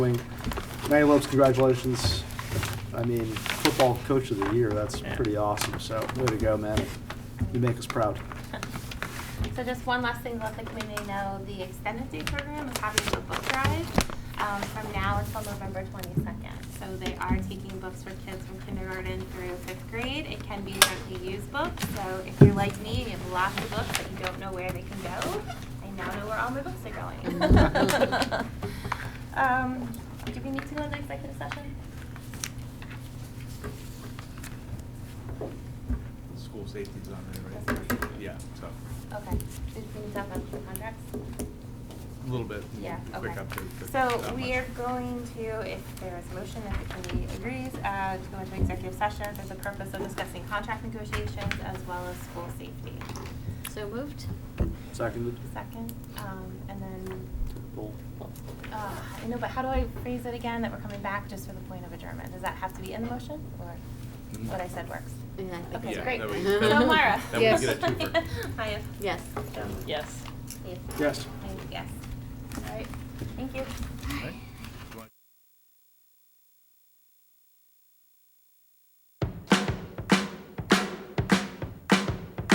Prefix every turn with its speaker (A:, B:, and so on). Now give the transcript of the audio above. A: wing. Manny Lopes, congratulations. I mean, football coach of the year, that's
B: Yeah.
A: pretty awesome, so way to go, Manny. You make us proud.
C: So just one last thing, to let the community know, the extended day program is having a book drive um, from now until November 22nd. So they are taking books for kids from kindergarten through fifth grade. It can be gently used books, so if you're like me, and you have lots of books, but you don't know where they can go, I now know where all my books are going. Um, Do we need to go into executive session?
D: School safety's on there, right? Yeah, so,
C: Okay, did we need to talk about the contracts?
D: a little bit.
C: Yeah,
D: Quick
C: okay.
D: update. but
C: So
D: not
C: we
D: much.
C: are going to, if there is a motion, if the committee agrees, uh, to go into executive session for the purpose of discussing contract negotiations as well as school safety.
E: So moved?
A: Seconded?
C: Second, um, and then,
A: Roll.
C: uh, I know, but how do I phrase it again, that we're coming back just for the point of adjournment? Does that have to be in the motion, or
D: Mm.
C: what I said works?
E: Yeah, I think
C: Okay,
E: that's
D: Yeah,
C: great.
D: that
E: way-
C: So Mara?
E: that way you
D: get a twofer.
C: Maya?
E: Yes.
C: Joan?
B: Yes.
C: Yes.
A: Yes.
C: Yes. All right, thank you.
D: Right?